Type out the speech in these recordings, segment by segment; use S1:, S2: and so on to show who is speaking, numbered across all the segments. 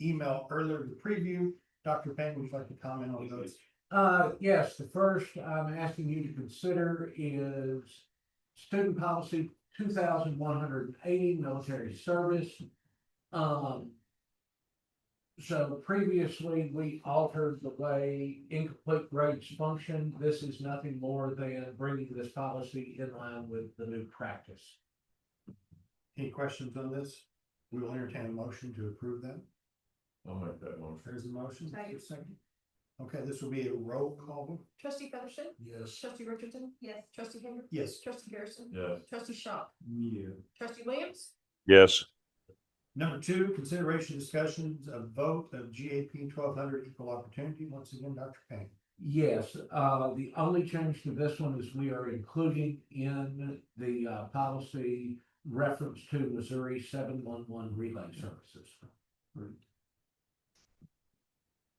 S1: email earlier to preview. Dr. Payne, would you like to comment on those?
S2: Uh, yes, the first I'm asking you to consider is student policy two thousand one hundred and eighty, military service. Um. So previously, we altered the way incomplete grades function. This is nothing more than bringing this policy in line with the new practice.
S1: Any questions on this? We will entertain a motion to approve them.
S3: I'll make that motion.
S1: There's a motion. Is there a
S4: Second.
S1: second? Okay, this will be a roll call.
S4: Trustee Featherston?
S2: Yes.
S4: Trustee Richardson? Yes. Trustee Hager?
S1: Yes.
S4: Trustee Harrison?
S3: Yes,
S4: Trustee Shaw?
S1: Yeah.
S4: Trustee Williams?
S5: yes,
S1: Number two, consideration discussions of vote of GAP twelve hundred equal opportunity. Once again, Dr. Payne.
S2: Yes, uh, the only change to this one is we are including in the, uh, policy reference to Missouri seven one one relay services.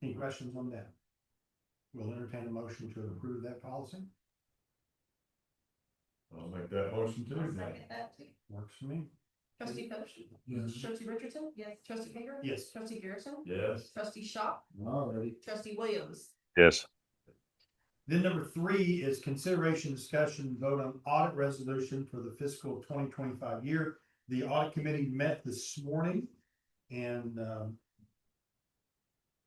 S1: Any questions on that? We'll entertain a motion to approve that policy.
S3: I'll make that motion too.
S4: that too.
S1: Works for me.
S4: Trustee Featherston?
S2: Yes.
S4: Trustee Richardson? Yes. Trustee Hager?
S1: Yes.
S4: Trustee Harrison?
S3: Yes,
S4: Trustee Shaw?
S2: All right.
S4: Trustee Williams?
S5: yes,
S1: Then number three is consideration, discussion, vote on audit resolution for the fiscal twenty twenty-five year. The audit committee met this morning and um,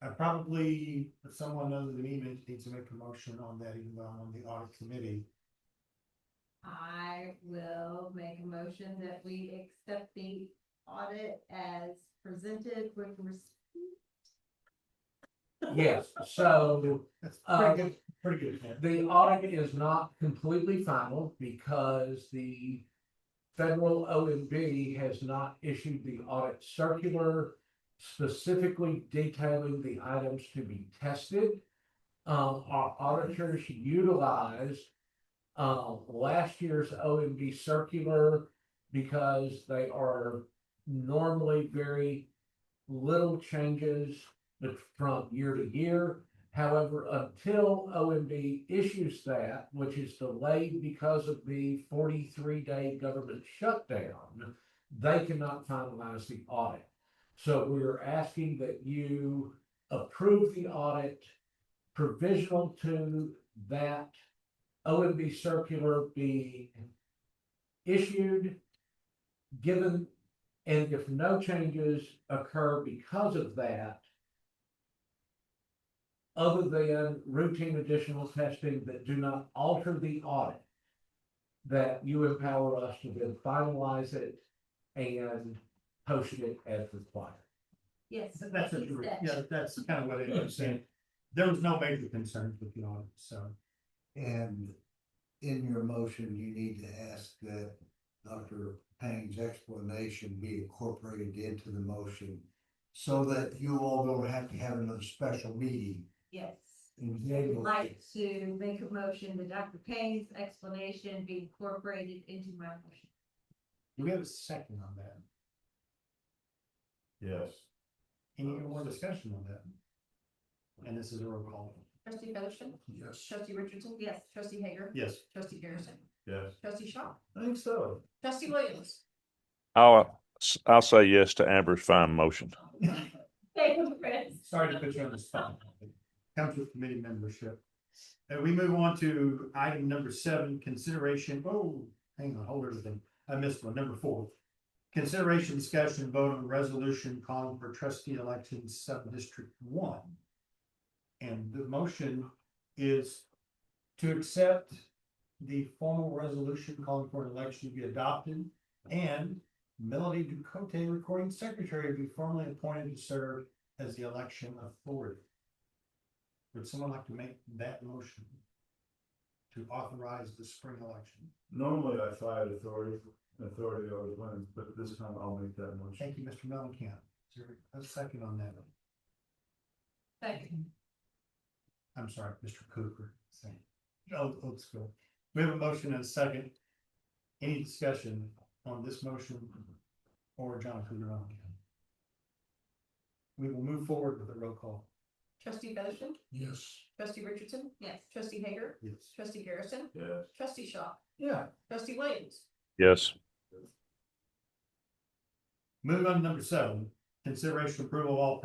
S1: I probably, if someone other than me needs to make a motion on that, even though I'm on the audit committee.
S6: I will make a motion that we accept the audit as presented with res-
S2: Yes, so
S1: That's
S6: Oh,
S2: Uh,
S1: pretty good, pretty good. Pat.
S2: the audit is not completely final because the federal OMB has not issued the audit circular specifically detailing the items to be tested. Um, our auditors utilized uh, last year's OMB circular because they are normally very little changes from year to year. However, until OMB issues that, which is delayed because of the forty-three day government shutdown, they cannot finalize the audit. So we're asking that you approve the audit provisional to that OMB circular be issued, given, and if no changes occur because of that, other than routine additional testing that do not alter the audit. That you empower us to then finalize it and post it as required.
S6: yes.
S1: That's a,
S6: what he said.
S1: yeah, that's kind of what it was saying. There was no major concerns with the audit, so.
S7: And in your motion, you need to ask that Dr. Payne's explanation be incorporated into the motion. So that you all don't have to have another special meeting
S6: Yes.
S7: and be able.
S6: Like to make a motion that Dr. Payne's explanation be incorporated into my motion.
S1: Do we have a second on that?
S3: yes,
S1: Any more discussion on that? And this is a roll call.
S4: Trustee Featherston?
S7: Yes.
S4: Trustee Richardson?
S6: Yes.
S4: Trustee Hager?
S1: Yes.
S4: Trustee Harrison?
S3: yes.
S4: Trustee Shaw?
S3: I think so.
S4: Trustee Williams?
S5: I'll, I'll say yes to Amber's fine motion.
S6: Thank you, Chris.
S1: Sorry to put you on the spot. Comes with committee membership. And we move on to item number seven, consideration, oh, hang on, hold everything. I missed one, number four. Consideration, discussion, vote on resolution calling for trustee elections sub-district one. And the motion is to accept the formal resolution calling for an election to be adopted and Melody Ducote, recording secretary, be formally appointed to serve as the election authority. Would someone like to make that motion? To authorize the spring election?
S3: Normally I fight authority, authority always wins, but this time I'll make that motion.
S1: Thank you, Mr. Mellencamp. Is there a second on that?
S6: Second.
S1: I'm sorry, Mr. Cooper. Second. Oh, old school. We have a motion and a second. Any discussion on this motion or Jonathan Mellencamp? We will move forward with a roll call.
S4: Trustee Featherston?
S2: Yes.
S4: Trustee Richardson?
S6: Yes.
S4: Trustee Hager?
S1: Yes.
S4: Trustee Harrison?
S3: Yes,
S4: Trustee Shaw?
S2: Yeah,
S4: Trustee Williams?
S5: Yes,
S1: Move on to number seven, consideration approval of all personnel